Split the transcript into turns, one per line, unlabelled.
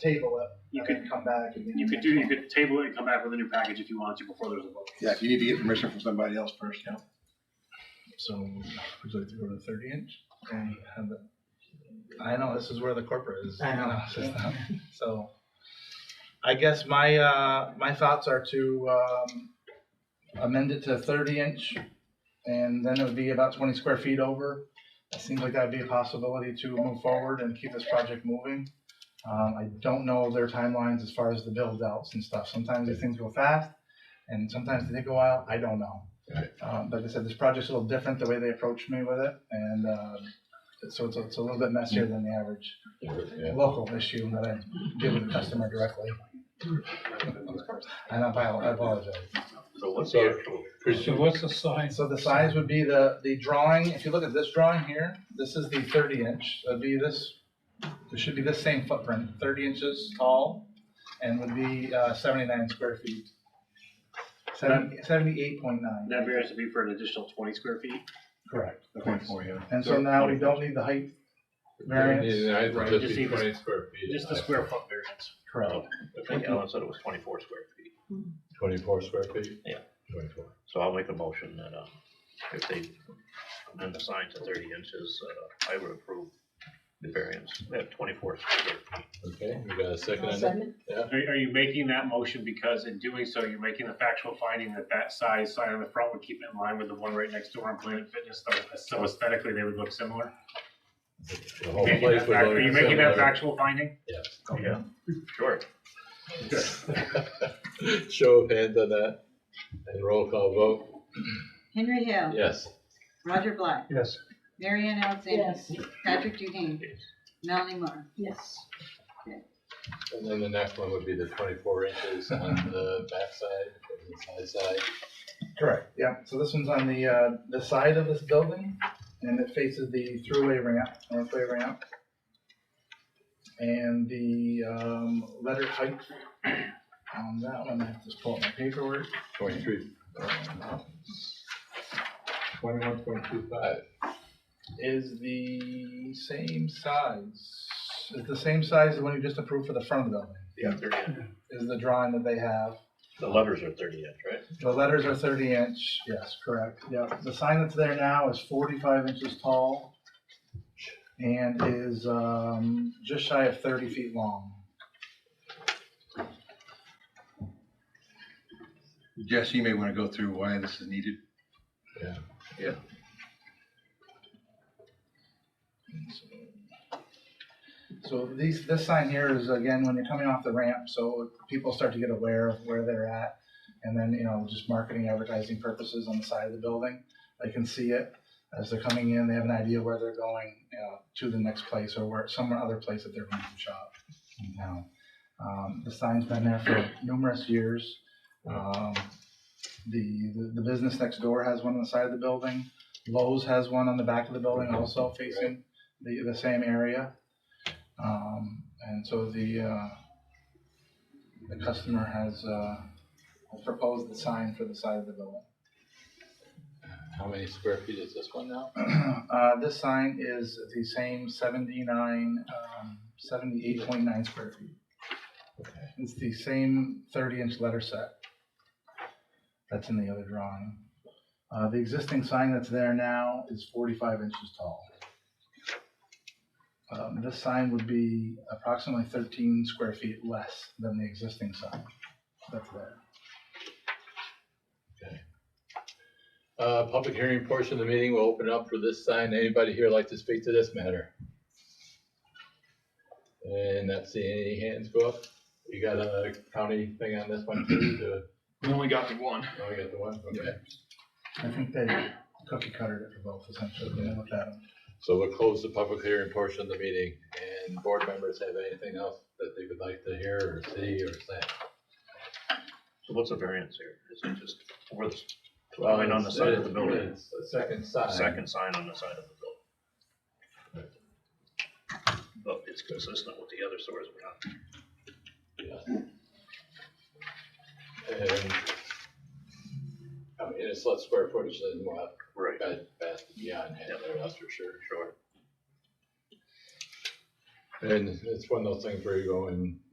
table it,
You
and
could,
then come back. and then
you could
next
do, you
one.
could table it and come back with a new package if you want to before there's a vote.
Yeah, if you need to get permission from somebody else first, yeah.
So, would you like to go to the thirty inch? And have the, I know, this is where the corporate is.
I know.
you it's just not- So, I guess my, uh, my thoughts are to, um, amend it to thirty inch, and then it would be about twenty square feet over. It seems like that'd be a possibility to move forward and keep this project moving. Um, I don't know their timelines as far as the build outs and stuff. Sometimes these things go fast, and sometimes they take a while. I don't know. Um, like I said, this project's a little different, the way they approached me with it, and, um, so it's, a- it's a little bit messier than the average local issue that I deal with the customer directly. And I apo- I apologize.
So what's the actual?
So what's the size?
So the size would be the, the drawing, if you look at this drawing here, this is the thirty inch, that'd be this, it should be this same footprint, thirty inches tall, and would be, uh, seventy-nine square feet. Seventy, seventy-eight point
And
nine,
That variance would be for an additional twenty square feet.
correct.
Twenty-four, yeah.
And so now we don't need the height variance.
Yeah,
Right,
just-
Just
just
see
be
the-
twenty square feet.
Just the square foot variance.
Correct.
I think Alan said it was twenty-four square feet.
Twenty-four square feet?
Yeah.
Twenty-four.
So I'll make a motion that, uh, if they amend the sign to thirty inches, uh, I would approve the variance at twenty-four square feet.
Okay, we got a second
I'll
on that?
second it.
Are, are you making that motion because in doing so, you're making the factual finding that that size sign on the front would keep it in line with the one right next door on Planet Fitness, so- so aesthetically they would look similar?
The whole
Making
place
that
would
fact- Are you
look
making that
similar.
factual finding?
Yes.
Yeah.
Sure.
Show of hands on that, and roll call vote,
Henry Hill,
yes.
Roger Black,
Yes.
Marianne Alexander,
Yes,
Patrick Duhane,
Yes.
Melanie Moore.
yes.
And then the next one would be the twenty-four inches on the backside, or the side side.
Correct, yeah, so this one's on the, uh, the side of this building, and it faces the throughway ramp, northway ramp. And the, um, letter height on that one, I have to just pull up my paperwork.
Twenty-three. Twenty-one point two five.
is the same size, it's the same size as the one you just approved for the front of the building,
Yeah, thirty inch.
is the drawing that they have.
The letters are thirty inch, right?
The letters are thirty inch, yes, correct, yeah. The sign that's there now is forty-five inches tall and is, um, just shy of thirty feet long.
Jess, you may want to go through why this is needed.
So these, this sign here is again, when you're coming off the ramp, so people start to get aware of where they're at. And then, you know, just marketing, advertising purposes on the side of the building, they can see it as they're coming in, they have an idea where they're going, you know, to the next place or where, some other place that they're going to shop in town. Um, the sign's been there for numerous years. Um, the, the- the business next door has one on the side of the building. Lowe's has one on the back of the building also facing the, the same area. Um, and so the, uh, the customer has, uh, has proposed the sign for the side of the building.
How many square feet is this one now?
Uh, this sign is the same seventy-nine, um, seventy-eight point nine square feet.
Okay.
It's the same thirty-inch letter set. That's in the other drawing. Uh, the existing sign that's there now is forty-five inches tall. Um, this sign would be approximately thirteen square feet less than the existing sign that's there.
Uh, public hearing portion of the meeting will open up for this sign. Anybody here like to speak to this matter? And not seeing any hands go up. You got a county thing on this one too, to,
We only got the one.
oh, you got the one, okay.
I think they cookie cuttered it for both essentially, when they looked at them.
So we'll close the public hearing portion of the meeting, and board members have anything else that they would like to hear or see or say?
So what's the variance here? Is it just over the line on the side of the building?
It's the second sign.
Second sign on the side of the building. But it's consistent with the other stores we're not
Yeah. And, I mean, it's less square footage than what
Right.
Got past and beyond, yeah, that's for sure.
Sure.
And it's one of those things where you go and